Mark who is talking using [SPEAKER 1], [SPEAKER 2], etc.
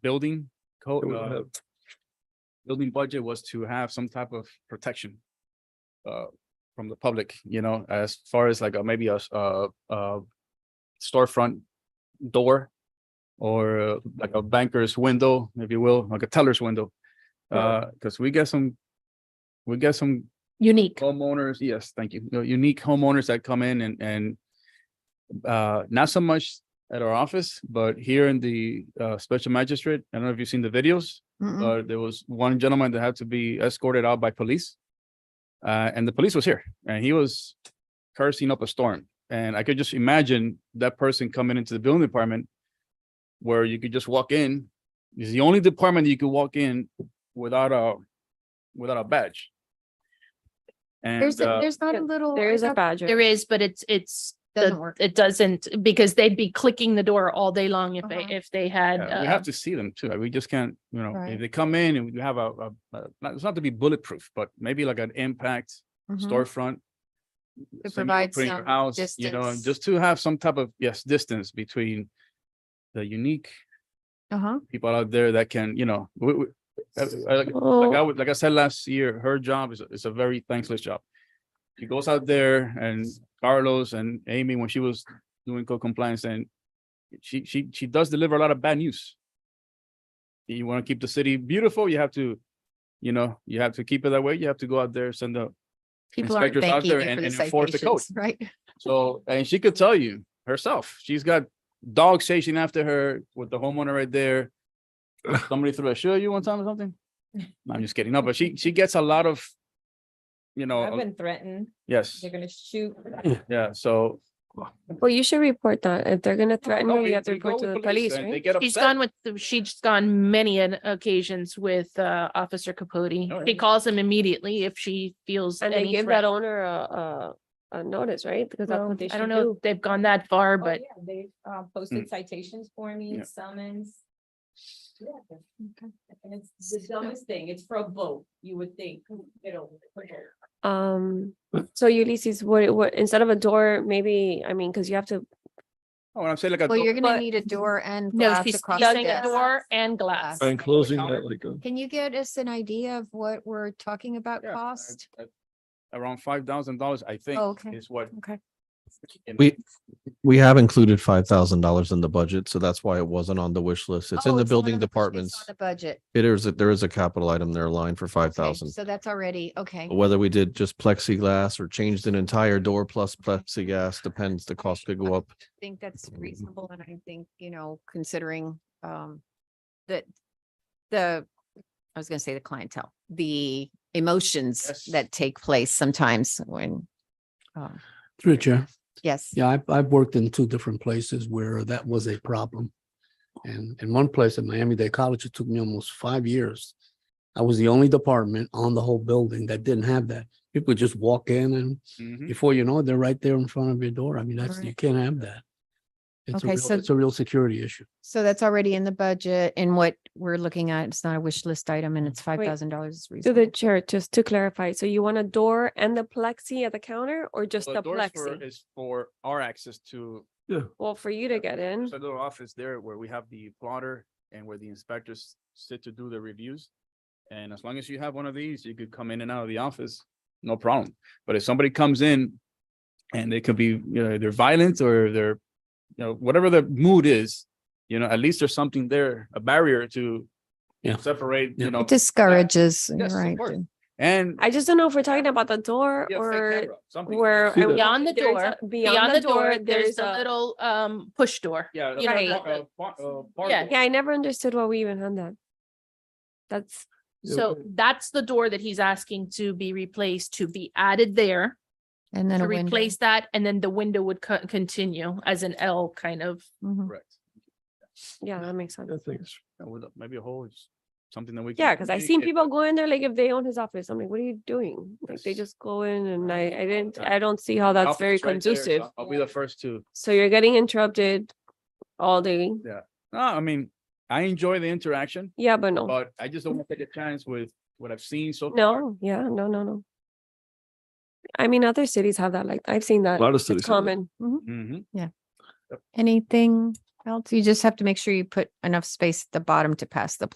[SPEAKER 1] building
[SPEAKER 2] It
[SPEAKER 1] code,
[SPEAKER 2] would
[SPEAKER 1] uh,
[SPEAKER 2] have-
[SPEAKER 1] building budget was to have some type of protection uh, from the public, you know, as far as like uh, maybe a, s- uh, uh, storefront door or uh, like a banker's window, if you will, like a teller's window. Uh, because we get some, we get some
[SPEAKER 3] unique.
[SPEAKER 1] homeowners, yes, thank you, you know, unique homeowners that come in and, and uh, not so much at our office, but here in the, uh, special magistrate, I don't know if you've seen the videos.
[SPEAKER 3] Mm-mm.
[SPEAKER 1] Uh, there was one gentleman that had to be escorted out by police. Uh, and the police was here and he was cursing up a storm. And I could just imagine that person coming into the building department where you could just walk in. It's the only department that you could walk in without a, without a badge. And,
[SPEAKER 3] There's, a-
[SPEAKER 1] uh,
[SPEAKER 3] there's not a
[SPEAKER 4] yeah,
[SPEAKER 3] little.
[SPEAKER 4] There
[SPEAKER 3] I
[SPEAKER 4] is a
[SPEAKER 3] thought
[SPEAKER 4] badger.
[SPEAKER 5] There is, but it's, it's, the-
[SPEAKER 3] Doesn't work.
[SPEAKER 5] it doesn't, because they'd be clicking the door all day long if they,
[SPEAKER 3] Uh-huh.
[SPEAKER 5] if they had.
[SPEAKER 1] yeah, we
[SPEAKER 5] uh,
[SPEAKER 1] have to see them too. We just can't, you know,
[SPEAKER 3] Right.
[SPEAKER 1] if they come in and we have a, a, a- not, it's not to be bulletproof, but maybe like an impact
[SPEAKER 6] Mm-hmm.
[SPEAKER 3] Mhm.
[SPEAKER 1] storefront.
[SPEAKER 3] To
[SPEAKER 1] so you
[SPEAKER 3] provide
[SPEAKER 1] put in your
[SPEAKER 3] some
[SPEAKER 1] house, You know, and
[SPEAKER 3] distance.
[SPEAKER 1] just to have some type of, yes, distance between the unique
[SPEAKER 3] Uh-huh.
[SPEAKER 1] people out there that can, you know, we, we, I- I- like like I
[SPEAKER 5] Oh,
[SPEAKER 1] would, like I said last year, her job is, is a very thankless job. She goes out there and Carlos and Amy, when she was doing code compliance and she, she, she does deliver a lot of bad news. You want to keep the city beautiful, you have to, you know, you have to keep it that way. You have to go out there, send a
[SPEAKER 3] People aren't
[SPEAKER 1] Inspectors out
[SPEAKER 3] thanking
[SPEAKER 1] there
[SPEAKER 3] you
[SPEAKER 1] and-
[SPEAKER 3] for the
[SPEAKER 1] and enforce the code.
[SPEAKER 3] citations, right?
[SPEAKER 1] So, and she could tell you herself, she's got dogs chasing after her with the homeowner right there. Somebody threw a shoe at you one time or something? No, I'm just kidding. No, but she, she gets a lot of, you
[SPEAKER 2] Oh,
[SPEAKER 4] I've
[SPEAKER 1] know,
[SPEAKER 4] been threatened.
[SPEAKER 1] yes,
[SPEAKER 4] They're gonna shoot.
[SPEAKER 1] yeah, so.
[SPEAKER 6] Well, you should report that. If they're gonna threaten
[SPEAKER 1] No,
[SPEAKER 6] you,
[SPEAKER 1] we-
[SPEAKER 6] you have to
[SPEAKER 1] we go
[SPEAKER 6] report to
[SPEAKER 1] with
[SPEAKER 6] the police,
[SPEAKER 1] and They
[SPEAKER 6] right?
[SPEAKER 1] get
[SPEAKER 5] She's
[SPEAKER 1] upset.
[SPEAKER 5] gone with, the- she's gone many an occasions with, uh, Officer
[SPEAKER 1] Oh,
[SPEAKER 5] Capote.
[SPEAKER 1] yeah.
[SPEAKER 5] She calls him immediately if she feels
[SPEAKER 6] And they
[SPEAKER 5] any
[SPEAKER 6] give that
[SPEAKER 5] threat.
[SPEAKER 6] owner a, a, a notice, right? Because that's
[SPEAKER 4] Well,
[SPEAKER 6] what they
[SPEAKER 5] I
[SPEAKER 6] should
[SPEAKER 5] don't know
[SPEAKER 6] do.
[SPEAKER 5] if they've gone that far,
[SPEAKER 4] Oh,
[SPEAKER 5] but
[SPEAKER 4] yeah, They uh,
[SPEAKER 2] Hmm.
[SPEAKER 4] posted citations for me,
[SPEAKER 1] Yeah.
[SPEAKER 4] summons. Yeah, And it's the dumbest thing. It's for a vote, you would think, you know. for vote.
[SPEAKER 6] Um, so Ulysses, what, what, instead of a door, maybe, I mean, cause you have to,
[SPEAKER 1] Oh, and I'm saying like. a
[SPEAKER 3] Well,
[SPEAKER 1] dog-
[SPEAKER 3] you're gonna
[SPEAKER 6] But-
[SPEAKER 3] need a door and
[SPEAKER 5] no,
[SPEAKER 3] glass
[SPEAKER 5] she's
[SPEAKER 3] across
[SPEAKER 5] using a
[SPEAKER 3] this.
[SPEAKER 5] door and glass.
[SPEAKER 3] Glass.
[SPEAKER 2] And closing that like a.
[SPEAKER 3] Can you get us an idea of what we're talking about
[SPEAKER 1] yeah,
[SPEAKER 3] cost?
[SPEAKER 1] uh, uh, Around five thousand dollars, I think,
[SPEAKER 3] Oh, okay.
[SPEAKER 1] is what.
[SPEAKER 3] Okay.
[SPEAKER 1] in-
[SPEAKER 7] We, we have included five thousand dollars in the budget, so that's why it wasn't on the wish list. It's
[SPEAKER 3] Oh,
[SPEAKER 7] in the
[SPEAKER 3] not
[SPEAKER 7] building
[SPEAKER 3] on the budget, it's
[SPEAKER 7] departments.
[SPEAKER 3] on The budget.
[SPEAKER 7] It is, there is a capital item there aligned for five
[SPEAKER 3] Okay,
[SPEAKER 7] thousand. Oh.
[SPEAKER 3] So that's already, okay.
[SPEAKER 7] Whether we did just plexiglass or changed an entire door plus plexiglass depends, the cost could go up.
[SPEAKER 3] I think that's reasonable and I think, you know, considering um that the, I was gonna say the clientele, the
[SPEAKER 1] Yes.
[SPEAKER 3] emotions that take place sometimes when um,
[SPEAKER 8] Through the chair.
[SPEAKER 3] yes.
[SPEAKER 8] Yeah, I've, I've worked in two different places where that was a problem. And in one place at Miami-Dade College, it took me almost five years. I was the only department on the whole building that didn't have that. People just walk in and
[SPEAKER 1] Mhm.
[SPEAKER 8] before you know it, they're right there in front of your door. I mean, that's, you
[SPEAKER 3] Mm-hmm. Right.
[SPEAKER 8] can't have that. It's a
[SPEAKER 3] Okay,
[SPEAKER 8] real,
[SPEAKER 3] so-
[SPEAKER 8] it's a real security issue.
[SPEAKER 3] So that's already in the budget and what we're looking at, it's not a wish list item and it's five thousand dollars.
[SPEAKER 6] to the chair, just to clarify. So you want a door and the plexi at the counter or just
[SPEAKER 1] So the
[SPEAKER 6] the
[SPEAKER 1] doors for-
[SPEAKER 6] plexi?
[SPEAKER 1] Is for our access to
[SPEAKER 6] Well, for you to get in.
[SPEAKER 1] There's a little office there where we have the plotter and where the inspectors sit to do the reviews. And as long as you have one of these, you could come in and out of the office, no problem. But if somebody comes in and they could be, you know, they're violent or they're, you know, whatever the mood is, you know, at least there's something there, a barrier to
[SPEAKER 8] Yeah.
[SPEAKER 1] separate,
[SPEAKER 8] Yeah.
[SPEAKER 1] you know,
[SPEAKER 3] Discourages, you're
[SPEAKER 1] Yes, of
[SPEAKER 3] right.
[SPEAKER 1] course. and
[SPEAKER 6] I just don't know if we're talking about the door
[SPEAKER 1] yeah, fake
[SPEAKER 6] or
[SPEAKER 1] camera, something.
[SPEAKER 6] where.
[SPEAKER 8] See
[SPEAKER 6] I-
[SPEAKER 8] the-
[SPEAKER 5] Beyond the
[SPEAKER 6] there's
[SPEAKER 5] door,
[SPEAKER 6] a-
[SPEAKER 5] Beyond the door, there's a little, um, push door.
[SPEAKER 1] Yeah.
[SPEAKER 5] you know,
[SPEAKER 1] a
[SPEAKER 6] like-
[SPEAKER 1] bar- a bar- a bar
[SPEAKER 5] Yeah.
[SPEAKER 1] door.
[SPEAKER 6] Yeah, I never understood why we even had that. That's,
[SPEAKER 8] Yeah,
[SPEAKER 5] So
[SPEAKER 8] okay.
[SPEAKER 5] that's the door that he's asking to be replaced, to be added there,
[SPEAKER 3] And then
[SPEAKER 5] to
[SPEAKER 3] a window.
[SPEAKER 5] replace that, and then the window would co- continue as an L kind of.
[SPEAKER 6] Mm-hmm.
[SPEAKER 3] Mhm.
[SPEAKER 1] Correct.
[SPEAKER 6] yeah, that makes sense.
[SPEAKER 2] I think it's
[SPEAKER 1] Yeah, with a- Maybe a hole, is something that we. can
[SPEAKER 6] Yeah, because I seen
[SPEAKER 1] communicate.
[SPEAKER 6] people go in there like if they own his office, I'm like, what are you doing? Like they
[SPEAKER 1] Yes.
[SPEAKER 6] just go in and I, I didn't,
[SPEAKER 1] Yeah.
[SPEAKER 6] I don't see how that's
[SPEAKER 1] Alpha's
[SPEAKER 6] very
[SPEAKER 1] right there, so
[SPEAKER 6] conducive.
[SPEAKER 1] I'll be the first to,
[SPEAKER 6] So you're getting interrupted all day.
[SPEAKER 1] no, I mean, I enjoy the interaction,
[SPEAKER 6] Yeah, but no,
[SPEAKER 1] but I just don't want to take a chance with what I've seen so. far.
[SPEAKER 6] Oh. no, yeah, no, no, no. I mean, other cities have that, Mm-hmm. like I've seen
[SPEAKER 2] a
[SPEAKER 6] that.
[SPEAKER 2] lot of
[SPEAKER 6] It's
[SPEAKER 1] Mm-hmm.
[SPEAKER 2] cities. have that.
[SPEAKER 6] common. Mhm.
[SPEAKER 1] Mhm.
[SPEAKER 3] Anything Well, you just have to make sure you put enough space at the bottom to pass the